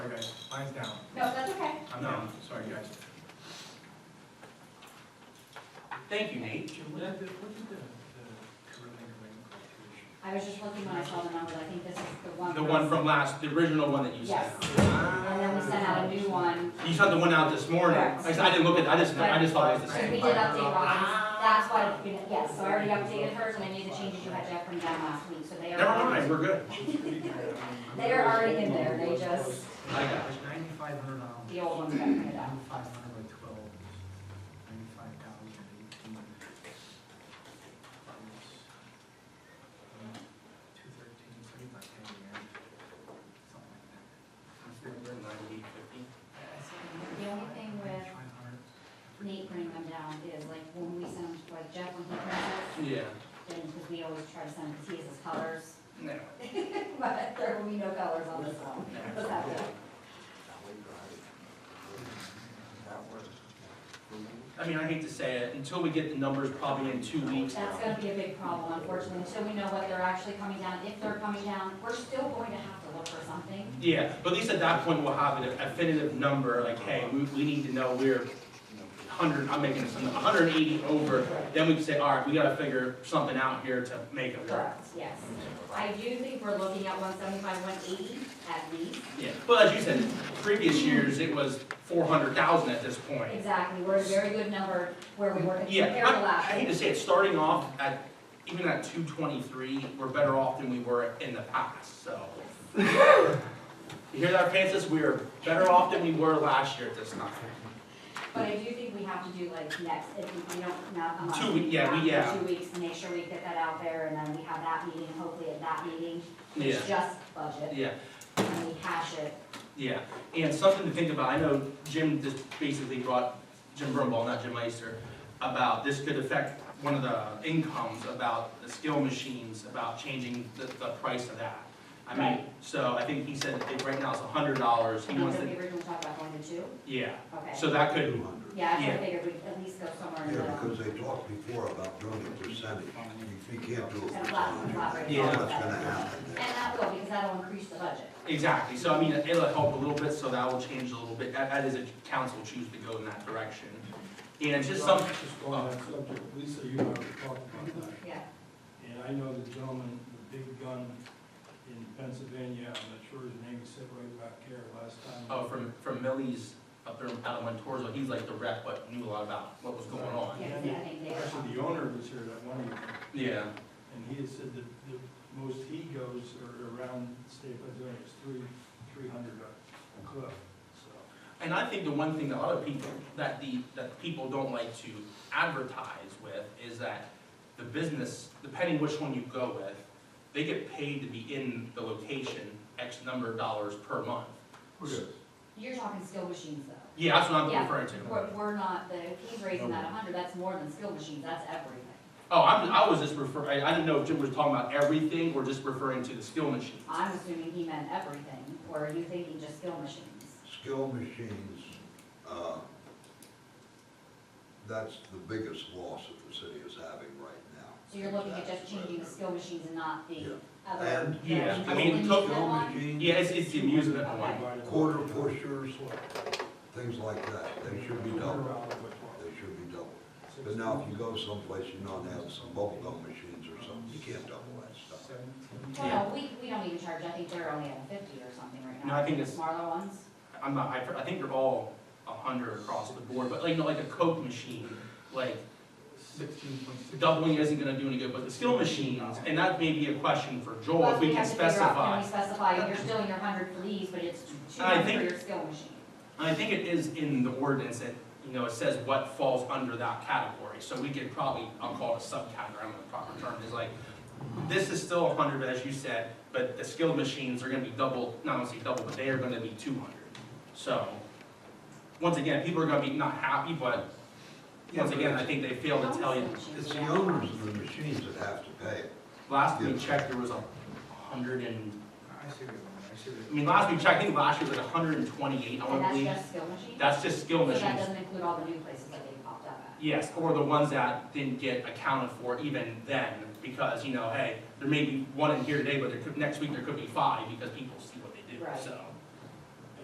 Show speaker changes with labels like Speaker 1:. Speaker 1: Mine's down.
Speaker 2: No, that's okay.
Speaker 1: I'm down, sorry guys.
Speaker 3: Thank you, Nate.
Speaker 1: Jim, what did the, what did the, the Carilion Ring quotation?
Speaker 2: I was just looking when I saw the number, I think this is the one.
Speaker 3: The one from last, the original one that you sent
Speaker 2: Yes.
Speaker 3: out.
Speaker 2: And then we sent out a new one,
Speaker 3: You sent the one out this morning.
Speaker 2: Correct.
Speaker 3: Like I said, I didn't look at, I just, I just thought it was the
Speaker 2: so we
Speaker 3: same.
Speaker 2: did update Rhonda's, that's why, we didn't- yes, so I already updated hers, and I made the changes you had to have from down last week, so they are.
Speaker 3: Never mind, we're good.
Speaker 2: They are already in there, they just,
Speaker 3: I got
Speaker 1: There's ninety-five hundred dollars.
Speaker 2: the old ones got printed out.
Speaker 1: Ninety-five hundred by twelve, ninety-five thousand eighteen. Two thirteen, three by ten years, something like that.
Speaker 2: The only thing with Nate bringing them down is like when we send them to like Jeff when he prints it,
Speaker 3: Yeah.
Speaker 2: then, because we always try to send, because he has his colors,
Speaker 3: No.
Speaker 2: but there will be no colors on this one. What's that do?
Speaker 3: I mean, I hate to say it, until we get the numbers probably in two weeks.
Speaker 2: That's gonna be a big problem, unfortunately, until we know what they're actually coming down, if they're coming down, we're still going to have to look for something.
Speaker 3: Yeah, but at least at that point, we'll have a definitive number, like, hey, we, we need to know we're hundred, I'm making this, hundred and eighty over. Then we can say, all right, we gotta figure something out here to make it work.
Speaker 2: Correct, yes. I do think we're looking at one seventy-five, one eighty at least.
Speaker 3: Yeah, but as you said, previous years, it was four hundred thousand at this point.
Speaker 2: Exactly, we're at a very good number where we were compared
Speaker 3: Yeah,
Speaker 2: to
Speaker 3: I, I
Speaker 2: last
Speaker 3: hate
Speaker 2: year.
Speaker 3: to say it, starting off at, even at two twenty-three, we're better off than we were in the past, so. You hear that, Francis? We are better off than we were last year at this time.
Speaker 2: But I do think we have to do like next, if we- we don't, not a month.
Speaker 3: Two week- yeah, we-
Speaker 2: have to do
Speaker 3: yeah.
Speaker 2: Two weeks, to make sure we get that out there, and then we have that meeting, and hopefully at that meeting,
Speaker 3: Yeah,
Speaker 2: it's just budget,
Speaker 3: yeah.
Speaker 2: and we hash it.
Speaker 3: Yeah, and something to think about, I know Jim just basically brought, Jim Brumball, not Jim Meister, about this could affect one of the incomes about the skill machines, about changing the, the price of that. I mean,
Speaker 2: Right.
Speaker 3: so I think he said that right now it's a hundred dollars, he
Speaker 2: And
Speaker 3: wants
Speaker 2: then we
Speaker 3: to,
Speaker 2: were gonna talk about going to two,
Speaker 3: yeah,
Speaker 2: okay.
Speaker 3: so that could,
Speaker 4: Two hundred.
Speaker 2: Yeah, I
Speaker 3: Yeah.
Speaker 2: figured we'd at least go somewhere in the
Speaker 4: Yeah,
Speaker 2: middle.
Speaker 4: because they talked before about doing a percentage. If you can't do a
Speaker 2: And a flat, a
Speaker 4: percentage,
Speaker 2: flat rate.
Speaker 3: Yeah.
Speaker 4: what's gonna happen
Speaker 2: And
Speaker 4: there?
Speaker 2: that will, because that'll increase the budget.
Speaker 3: exactly, so I mean, it'll help a little bit, so that will change a little bit, that, that is a council choose to go in that direction. And just some,
Speaker 5: Just on that subject, Lisa, you and I were talking about that,
Speaker 2: Yeah.
Speaker 5: and I know the gentleman, the big gun in Pennsylvania, I'm not sure his name, he sat right back here last time.
Speaker 3: oh, from, from Millie's up there out of Montorzo, he's like the rep, but knew a lot about what was going on.
Speaker 2: Yeah, I think they-
Speaker 5: Actually, the owner was here that one year,
Speaker 3: Yeah.
Speaker 5: and he had said that the most he goes or around the state of Pennsylvania is three, three hundred a clip, so.
Speaker 3: And I think the one thing that a lot of people, that the, that people don't like to advertise with is that the business, depending which one you go with, they get paid to be in the location X number of dollars per month.
Speaker 2: You're talking skill machines though.
Speaker 3: Yeah, that's what I'm
Speaker 2: Yeah.
Speaker 3: referring to.
Speaker 2: We're, we're not, the, he's raising that a hundred, that's more than skill machines, that's everything.
Speaker 3: Oh, I'm, I was just referring, I didn't know if Jim was talking about everything or just referring to the skill machine.
Speaker 2: I'm assuming he meant everything, or are you thinking just skill machines?
Speaker 4: Skill machines, uh, that's the biggest loss that the city is having right now.
Speaker 2: So you're looking at just changing the skill machines and not the
Speaker 4: Yeah.
Speaker 2: other.
Speaker 4: And-
Speaker 3: Yeah, I mean,
Speaker 2: Only
Speaker 3: took-
Speaker 2: that
Speaker 4: Skill
Speaker 2: one?
Speaker 4: machines,
Speaker 3: Yeah, it's, it's the amusement one.
Speaker 5: Divided by-
Speaker 4: Quarter pushers, things like that, they should be doubled,
Speaker 5: Quarter by twelve.
Speaker 4: they should be doubled. But now if you go someplace, you know, they have some bubble gum machines or something, you can't double that stuff.
Speaker 3: Yeah.
Speaker 2: Well, no, we, we don't even charge, I think they're only at fifty or something right now.
Speaker 3: No, I think it's-
Speaker 2: Marlow ones,
Speaker 3: I'm not, I, I think they're all a hundred across the board, but like, you know, like a Coke machine, like,
Speaker 1: Sixteen point six.
Speaker 3: doubling isn't gonna do any good, but the skill machines, and that may be a question for Joel,
Speaker 2: Plus,
Speaker 3: if we can
Speaker 2: have to figure out,
Speaker 3: specify.
Speaker 2: Can we specify, you're still in your hundred for these, but it's two
Speaker 3: And I
Speaker 2: hundred for
Speaker 3: think-
Speaker 2: your skill machine?
Speaker 3: And I think it is in the ordinance that, you know, it says what falls under that category, so we could probably, I'll call it a subcategory, I don't know the proper term, is like, this is still a hundred, as you said, but the skilled machines are gonna be double, not only double, but they are gonna be two hundred. So, once again, people are gonna be not happy, but, once again, I think they fail to tell you.
Speaker 4: It's the owners of the machines that have to pay.
Speaker 3: Last we checked, there was a hundred and
Speaker 1: I see what you're doing, I see what you're
Speaker 3: I mean, last we checked, I think last year was like hundred and twenty-eight, I
Speaker 2: And
Speaker 3: want to
Speaker 2: that's
Speaker 3: believe.
Speaker 2: just skill machines?
Speaker 3: That's just
Speaker 2: So
Speaker 3: skill
Speaker 2: that
Speaker 3: machines.
Speaker 2: doesn't include all the new places that they popped up at?
Speaker 3: Yes, or the ones that didn't get accounted for even then, because, you know, hey, there may be one in here today, but there could, next week there could be five, because people see what they do,
Speaker 2: Right.
Speaker 3: so.